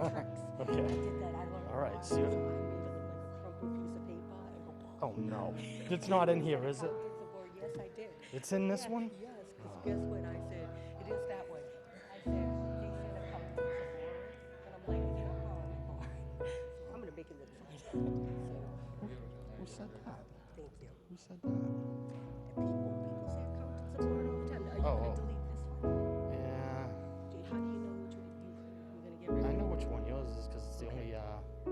tricks. Okay. I did that. I learned. All right, how so I you're- made it look like a crumpled piece of paper and go. pop. Oh no, it's not in here, is it? I was the word, Yes, I did. It's in this one? Yes, because guess what? I said, it is that way. I said, they said a couple things of words, and I'm like, "You're wrong, you're wrong." So I'm gonna make it look fun. So, Who said that? thank you. Who said that? The people, people say accountants of word all the time. Are you Oh, gonna oh. delete this one? Yeah, Do you- How do you know which one you, you're gonna get rid I of? know which one yours is because it's the only uh,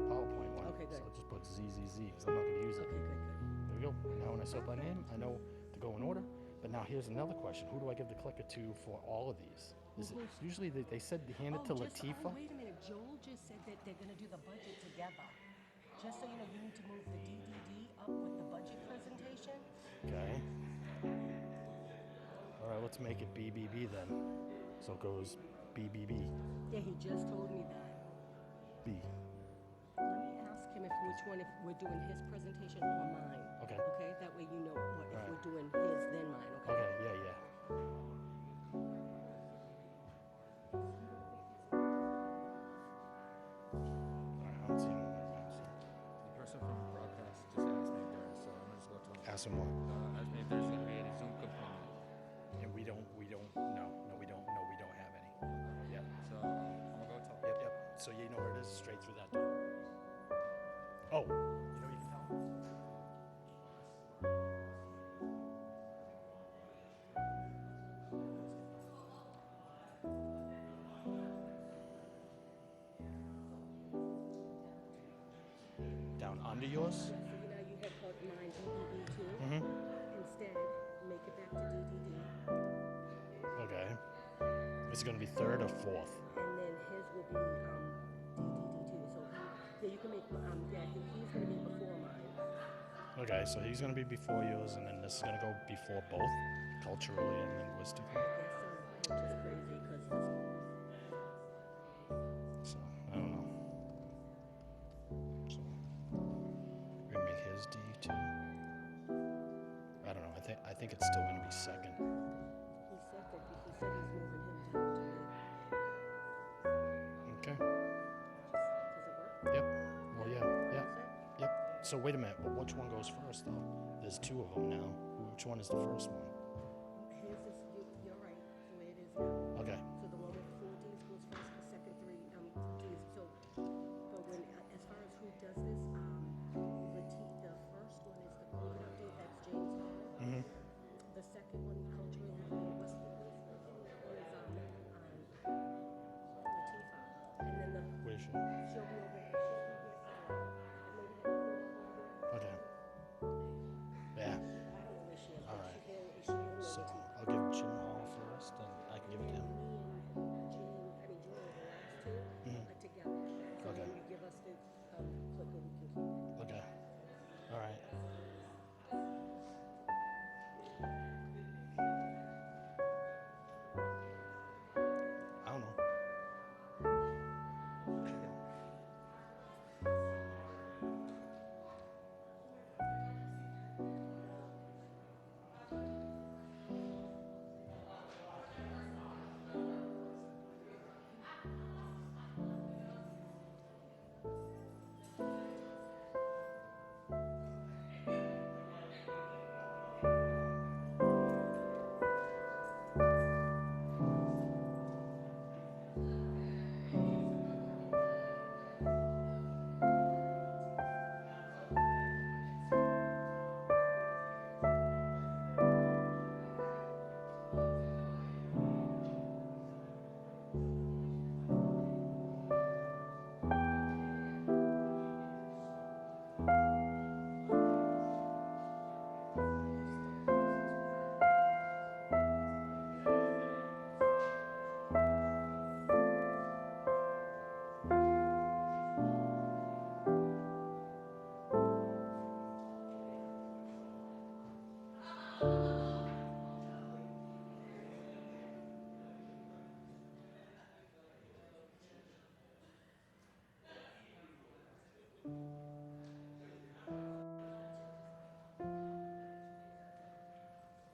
PowerPoint one. Okay, So I good. just put ZZZ because I'm not going to use it. Okay, good, good. There we go. Now when I set my name, I know to go in order. But now here's another question. Who do I give the clicker to for all of these? Is it, usually they, they said to hand it to Oh, just- Latifa. oh, Wait a minute, Joel just said that they're gonna do the budget together. Just so you know, you need to move the DDD up with the budget presentation. Okay. All right, let's make it BBB then. So it goes BBB. Yeah, he just told me that. B. Let me ask him if which one, if we're doing his presentation or mine. Okay. Okay, that way you know what, if Alright. we're doing his, then mine, okay? Okay, yeah, yeah. All right, I don't see anyone right now, The person from broadcast just asked me if there, so I'm gonna just go to so him. Ask him what? Uh, asked me if there's gonna be any Zoom component, And we don't, we don't, no, no, we don't, no, we don't have any. Yep, so I'm gonna go tell him. yep, yep. So you know where it is, straight through that door. Oh, you know you can tell Down under yours? Yeah, so you know, you had put mine DDD too. Mm-hmm. Instead, make it back to DDD, Okay. It's gonna be third or fourth? and then his will be, um, DDD too, so, yeah, you can make, um, yeah, he- he's gonna be before mine. Okay, so he's gonna be before yours, and then this is gonna go before both, culturally and linguistically. That sounds just crazy, 'cause it's- So I don't know. So we're gonna make his D too. I don't know. I think I think it's still gonna be second. he said that, he he said he's moving him down to it. Okay. Does it work? Yep. Well, yeah. Yeah. Is it? Yep. So wait a minute. But which one goes first though? There's two of them now. Which one is the first one? His is, you, you're right, the way it is now. Okay. So the one with the four Ds goes first, the second three, um, Ds, so, but when, as far as who does this, um, Mm-hmm. the T, the first one is the code update, that's James Hall. The second one, um, Mm-hmm. um,